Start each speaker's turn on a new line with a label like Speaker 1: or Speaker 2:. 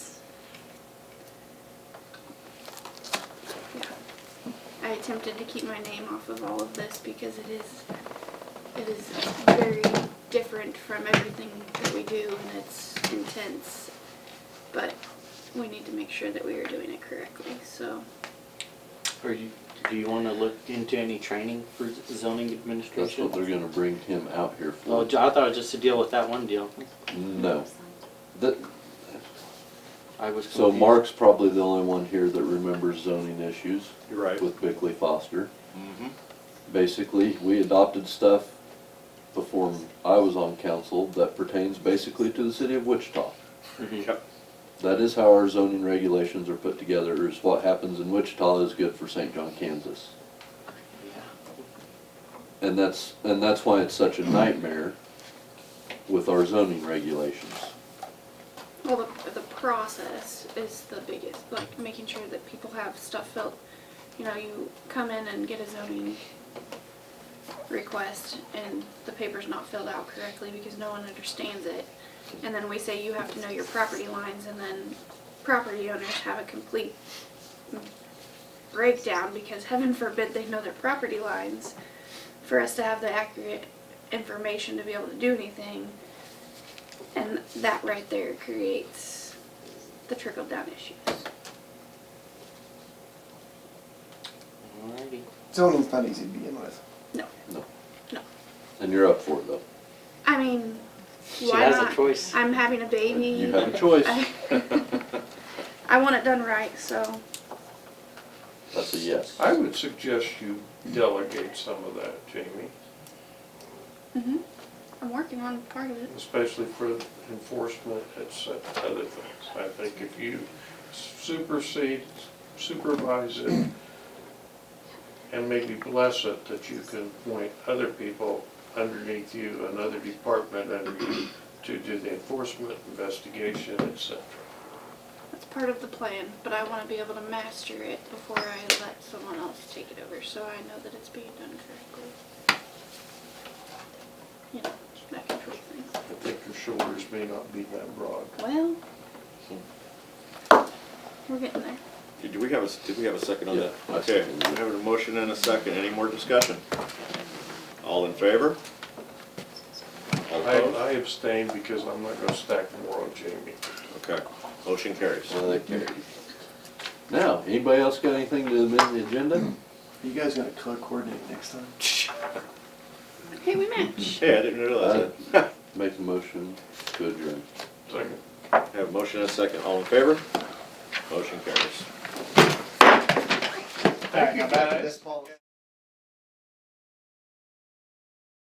Speaker 1: tempted to keep my name off of all of this because it is it is very different from everything that we do and it's intense. But we need to make sure that we are doing it correctly. So
Speaker 2: Are you, do you wanna look into any training for zoning
Speaker 3: That's what they're
Speaker 2: administration?
Speaker 3: gonna bring him out here
Speaker 2: Well,
Speaker 3: for.
Speaker 2: I thought it was just to deal with that one deal.
Speaker 3: No. That,
Speaker 2: I was confused.
Speaker 3: so Mark's probably the only one here that remembers zoning issues
Speaker 4: You're right.
Speaker 3: with Bickley Foster.
Speaker 4: Mm-hmm.
Speaker 3: Basically, we adopted stuff before I was on council that pertains basically to the city of Wichita.
Speaker 2: Mhm.
Speaker 4: Yep.
Speaker 3: That is how our zoning regulations are put together, is what happens in Wichita is good for St. John, Kansas.
Speaker 2: Yeah.
Speaker 3: And that's, and that's why it's such a nightmare with our zoning regulations.
Speaker 1: well the, the process is the biggest like making sure that people have stuff filled. You know, you come in and get a zoning request and the paper's not filled out correctly because no one understands it. And then we say you have to know your property lines and then property owners have a complete breakdown because heaven forbid they know their property lines for us to have the accurate information to be able to do anything. And that right there creates the trickle down issues.
Speaker 2: Alrighty.
Speaker 5: Zoning's not easy to begin with.
Speaker 3: And you're up for it though.
Speaker 1: I mean,
Speaker 2: She
Speaker 1: why
Speaker 2: has a
Speaker 1: not?
Speaker 2: choice.
Speaker 1: I'm having a baby.
Speaker 3: You have a choice.
Speaker 1: I want it done right, so
Speaker 3: That's a yes.
Speaker 4: I would suggest you delegate some of that, Jamie,
Speaker 1: mhm. I'm working on part of it.
Speaker 4: especially for enforcement and such other things. I think if you supersede, supervise it, and maybe bless it, that you can point other people underneath you, another department under you, to do the enforcement, investigation, et cetera.
Speaker 1: That's part of the plan, but I want to be able to master it before I let someone else take it over, so I know that it's being done correctly. You know, that control thing.
Speaker 4: I think your shoulders may not be that broad.
Speaker 1: Well, we're getting there.
Speaker 6: Did we have a, did we have a second on that?
Speaker 3: Yeah, I
Speaker 6: Okay,
Speaker 3: seconded
Speaker 6: we
Speaker 3: it.
Speaker 6: have a motion and a second, any more discussion? All in favor? All
Speaker 4: I
Speaker 6: opposed?
Speaker 4: I abstain because I'm not gonna stack more on Jamie.
Speaker 6: Okay, motion carries.
Speaker 3: Well, that carries. Now, anybody else got anything to amend the agenda?
Speaker 5: You guys gotta color coordinate next time.
Speaker 1: Hey, we match.
Speaker 6: Hey, I didn't realize that.
Speaker 3: Make a motion to adjourn.
Speaker 4: Second.
Speaker 6: Have a motion and a second, all in favor? Motion carries.
Speaker 5: Alright, now back to this, Paul.